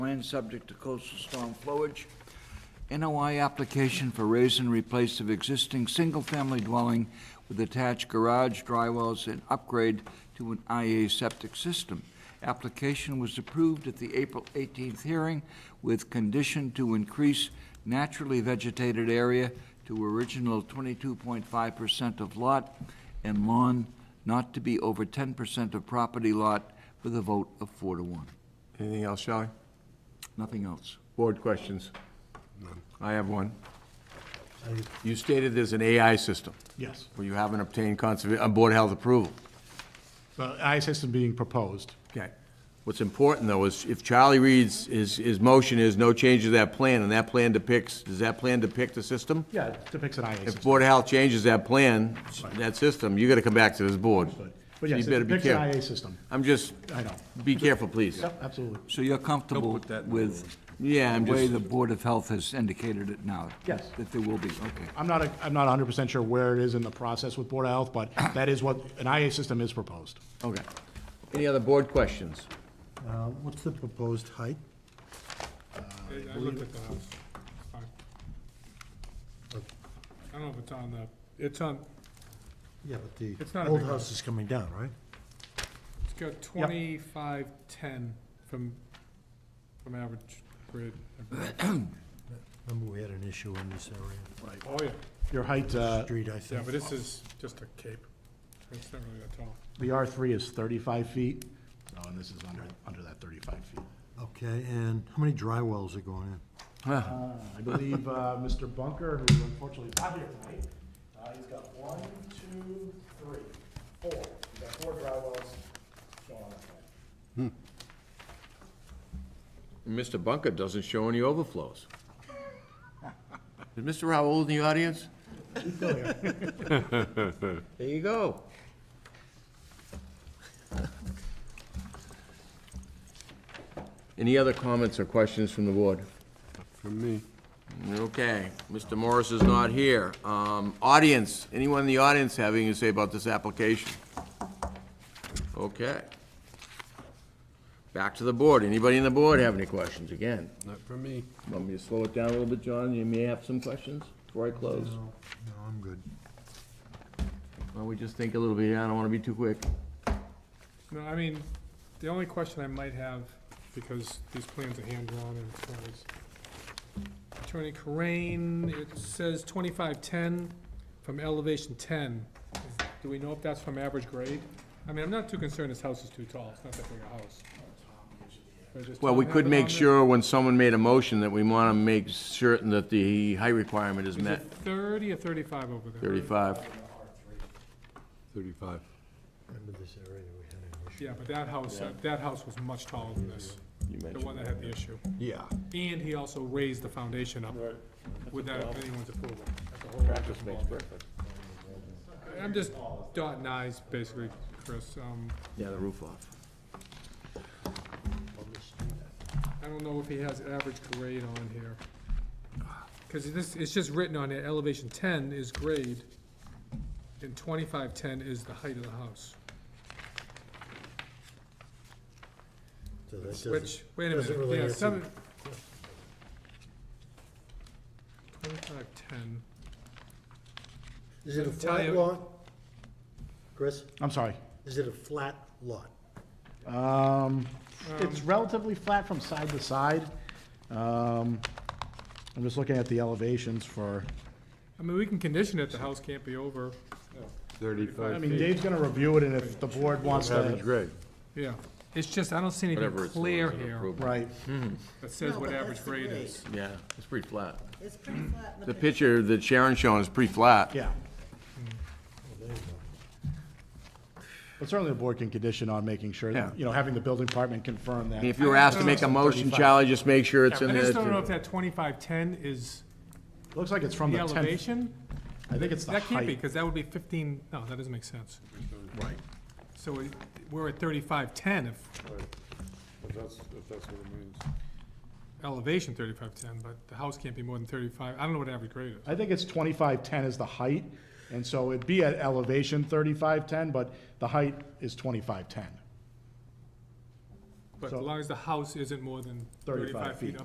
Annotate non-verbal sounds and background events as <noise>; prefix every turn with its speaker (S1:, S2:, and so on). S1: land subject to coastal storm flowage. NOI application for raise and replace of existing single-family dwelling with attached garage, dry wells, and upgrade to an IA septic system. Application was approved at the April 18th hearing with condition to increase naturally vegetated area to original 22.5% of lot and lawn not to be over 10% of property lot with a vote of four to one.
S2: Anything else, Shelley?
S1: Nothing else.
S2: Board questions? I have one. You stated there's an AI system,
S3: Yes,
S2: where you haven't obtained conserva, uh, Board of Health approval.
S3: the I system being proposed.
S2: Okay. What's important, though, is if Charlie reads, his, his motion is no change to that plan, and that plan depicts, does that plan depict the system?
S3: Yeah, it depicts an IA
S2: If
S3: system.
S2: Board of Health changes that plan, that system, you gotta come back to this board.
S3: But yes,
S2: You
S3: it
S2: better be
S3: depicts an IA
S2: careful.
S3: system.
S2: I'm just,
S3: I know.
S2: be careful, please.
S3: Yep, absolutely.
S1: So you're comfortable with
S2: Yeah, I'm
S1: the way
S2: just,
S1: the Board of Health has indicated it now?
S3: Yes.
S1: That there will be, okay.
S3: I'm not, a- I'm not hundred percent sure where it is in the process with Board of Health, <coughs> but that is what, an IA system is proposed.
S2: okay. Any other board questions?
S4: Uh, What's the proposed height?
S5: I looked at the house. It's fine. I don't know if it's on the, it's on,
S4: Yeah, but the
S5: It's not a
S4: old
S5: big
S4: house is coming down, right?
S5: it's got twenty-five ten from, from average grid.
S4: Remember, we had an issue in this area,
S5: Oh, yeah,
S3: Your height, uh,
S4: street, I
S5: yeah,
S4: think.
S5: but this is just a cape. It's not really that tall.
S3: the R three is thirty-five feet, Oh, and this is under, under that thirty-five feet.
S4: Okay, and how many dry wells are going in?
S3: Uh, I believe uh, Mr. Bunker, who unfortunately is not here tonight, uh, he's got one, two, three, four. He's got four dry wells going on that plan.
S2: Mr. Bunker doesn't show any overflows. Is Mr. Raoul in the audience? There you go. Any other comments or questions from the board? From me. Okay, Mr. Morris is not here. Um, Audience, anyone in the audience have anything to say about this application? Okay. Back to the board. Anybody in the board have any questions again? Not for me. Want me to slow it down a little bit, John? You may have some questions before I close.
S4: No, no, I'm good.
S2: Well, we just think a little bit. I don't want to be too quick.
S5: No, I mean, the only question I might have, because these plans are hand-drawn and it's not as- Attorney Corain, it says twenty-five ten from elevation ten. Is- Do we know if that's from average grade? I mean, I'm not too concerned this house is too tall, it's not that big a house. Or does
S2: Well, we
S5: Tom
S2: could
S5: have it
S2: make
S5: on there?
S2: sure when someone made a motion that we want to make certain that the height requirement is
S5: Is
S2: met.
S5: it thirty or thirty-five over there?
S2: Thirty-five.
S6: Thirty-five.
S4: Remember this area, we had an issue.
S5: Yeah, but that house, uh, that house was much taller than this,
S2: You
S5: the
S2: mentioned.
S5: one that had the issue.
S6: Yeah.
S5: And he also raised the foundation up without anyone's approval. That's a whole lot of involvement. I'm just dotting i's basically, Chris. Um,
S2: Yeah, the roof off.
S5: I don't know if he has average grade on here. Cause this, it's just written on it, elevation ten is grade, and twenty-five ten is the height of the house.
S4: So that doesn't-
S5: Which, wait a
S4: doesn't
S5: minute,
S4: really
S5: yeah,
S4: answer
S5: seven. Twenty-five ten.
S4: Is it a
S5: tell
S4: flat
S5: you-
S4: lot? Chris,
S3: I'm sorry.
S4: is it a flat lot?
S3: Um, it's relatively flat from side to side. Um, I'm just looking at the elevations for,
S5: I mean, we can condition it, the house can't be over,
S3: I
S6: Thirty-five
S3: mean, Dave's gonna review it, and if the board wants
S6: average
S3: to,
S6: grade.
S5: yeah. It's just, I don't see
S2: Whatever
S5: anything
S2: it's. the ones
S5: clear
S2: that are
S5: here
S2: approved.
S3: right,
S5: that says
S7: No,
S5: what
S7: but
S5: average
S7: that's the
S5: grade
S7: grade.
S5: is.
S2: Yeah, it's pretty flat.
S7: It's pretty flat in
S2: The
S7: the
S2: picture that Sharon's showing is pretty flat.
S3: yeah.
S5: Mm-hmm.
S3: But certainly the board can condition on making sure,
S2: Yeah.
S3: that you know, having the building department confirm that.
S2: And If you were asked to make a motion, Charlie, just make sure it's
S5: I
S2: in
S5: just don't know
S2: there.
S5: if that twenty-five ten is
S3: Looks like it's from
S5: the
S3: the tenth,
S5: elevation?
S3: I think it's the
S5: That can't be,
S3: height.
S5: because that would be fifteen, no, that doesn't make sense.
S3: Right.
S5: So it- we're at thirty-five ten if,
S6: If that's, if that's what it means.
S5: elevation thirty-five ten, but the house can't be more than thirty-five, I don't know what average grade is.
S3: I think it's twenty-five ten is the height, and so it'd be at elevation thirty-five ten, but the height is twenty-five ten.
S5: But
S3: So-
S5: as long as the house isn't more than
S3: 35
S5: thirty-five feet
S3: feet.